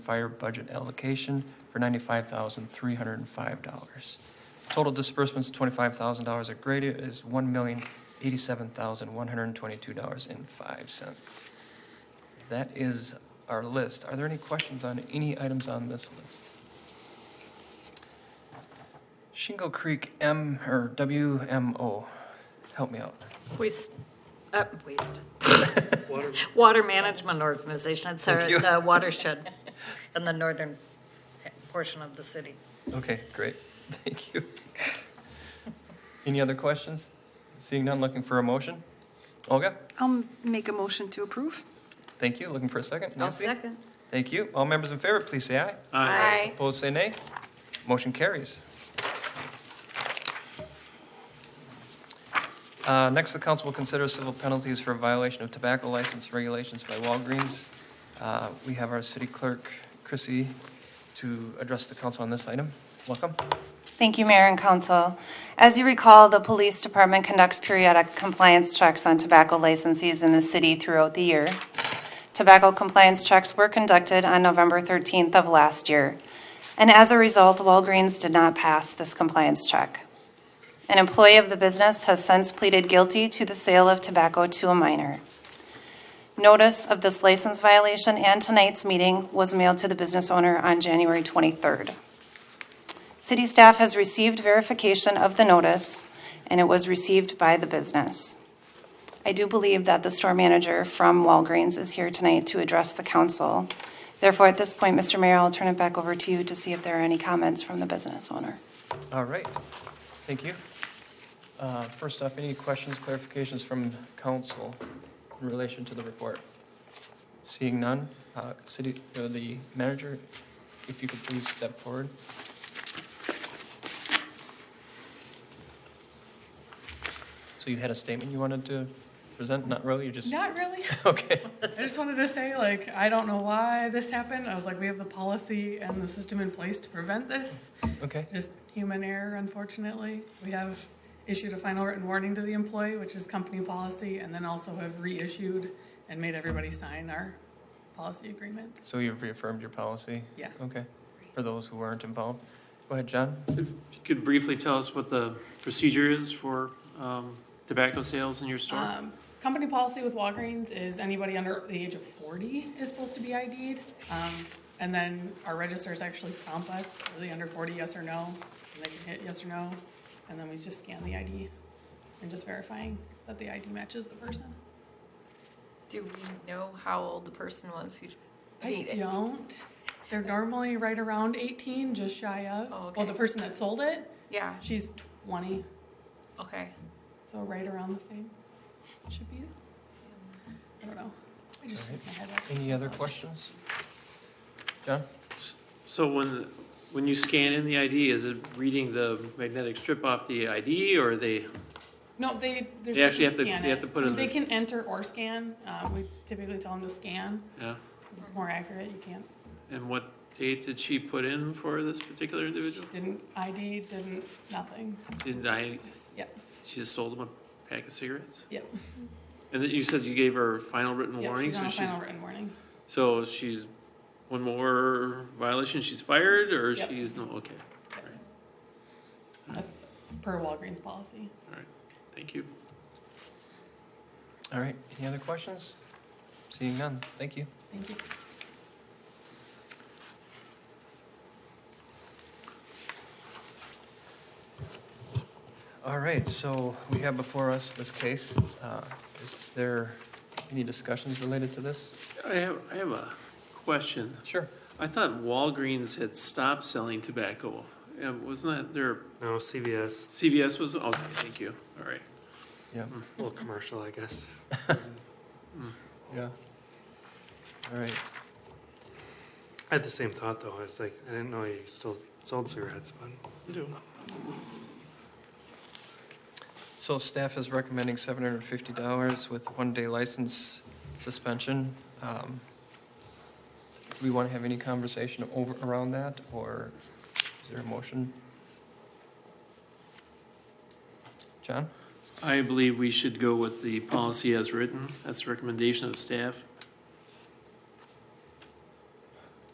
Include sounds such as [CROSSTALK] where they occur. fire budget allocation for $95,305. Total disbursements, $25,000. A grade is $1,087,122.05. That is our list. Are there any questions on any items on this list? Shingle Creek M, or WMO, help me out. Waste, uh, waste. [LAUGHS] Water Management Organization, it's our, Thank you. the [LAUGHS] watershed in the northern portion of the city. Okay, great. [LAUGHS] Thank you. Any other questions? Seeing none, looking for a motion? Olga, I'll make a motion to approve. thank you. Looking for a 2nd I'll Nancy? second. Thank you. All members in favor, please say aye. Aye. Opposed, say nay. Motion carries. Uh, Next, the council will consider civil penalties for violation of tobacco license regulations by Walgreens. Uh, We have our city clerk, Chrissy, to address the council on this item. Welcome. Thank you, Mayor and Council. As you recall, the Police Department conducts periodic compliance checks on tobacco licensees in the city throughout the year. Tobacco compliance checks were conducted on November 13th of last year, and as a result, Walgreens did not pass this compliance check. An employee of the business has since pleaded guilty to the sale of tobacco to a minor. Notice of this license violation and tonight's meeting was mailed to the business owner on January 23rd. City staff has received verification of the notice, and it was received by the business. I do believe that the store manager from Walgreens is here tonight to address the council. Therefore, at this point, Mr. Mayor, I'll turn it back over to you to see if there are any comments from the business owner. All right, thank you. Uh, First off, any questions, clarifications from council in relation to the report? Seeing none, uh, city, or the manager, if you could please step forward. So you had a statement you wanted to present? Not really, you just? Not really. [LAUGHS] [LAUGHS] Okay, I just wanted to say, like, I don't know why this happened. I was like, we have the policy and the system in place to prevent this. okay, Just human error, unfortunately. We have issued a final written warning to the employee, which is company policy, and then also have reissued and made everybody sign our policy agreement. so you've reaffirmed your policy? Yeah. Okay, for those who weren't involved. Go ahead, John. If you could briefly tell us what the procedure is for um, tobacco sales in your store? Um, company policy with Walgreens is anybody under the age of 40 is supposed to be ID'd. Um, and then our registers actually prompt us, are they under 40, yes or no? And they can hit yes or no. And then we just scan the ID and just verifying that the ID matches the person. Do we know how old the person was who I made it? don't. They're normally right around 18, just shy of. Oh, Well, okay. the person that sold it, Yeah, she's 20, okay. so right around the same. Should be. I don't know. I just All right. shook my head up. Any other questions? John? So when, when you scan in the ID, is it reading the magnetic strip off the ID, or they, No, they, there's. They actually have to- scan they have it. to put in They the- can enter or scan. Um, we typically tell them to scan. yeah? This is more accurate. You can't, And what date did she put in for this particular individual? didn't ID, didn't, nothing. Didn't I, Yep, she just sold him a pack of cigarettes? yep. And then you said you gave her final written yep, warning, she's so on a she's, final written warning. so she's, one more violation, she's fired, or Yep. she's, no, okay, all right, That's per Walgreens policy. all right, thank you. All right, any other questions? Seeing none, thank you. Thank you. All right, so we have before us this case. Uh, Is there any discussions related to this? I have, I have a question. Sure. I thought Walgreens had stopped selling tobacco. Uh, Wasn't that their, No, CVS, CVS was, okay, thank you, all right. Yeah, a little commercial, I guess. yeah. All right, I had the same thought though. I was like, I didn't know you still sold cigarettes, but you do. so staff is recommending $750 with one-day license suspension. Um, Do we want to have any conversation over, around that, or is there a motion? John? I believe we should go with the policy as written. That's the recommendation of staff.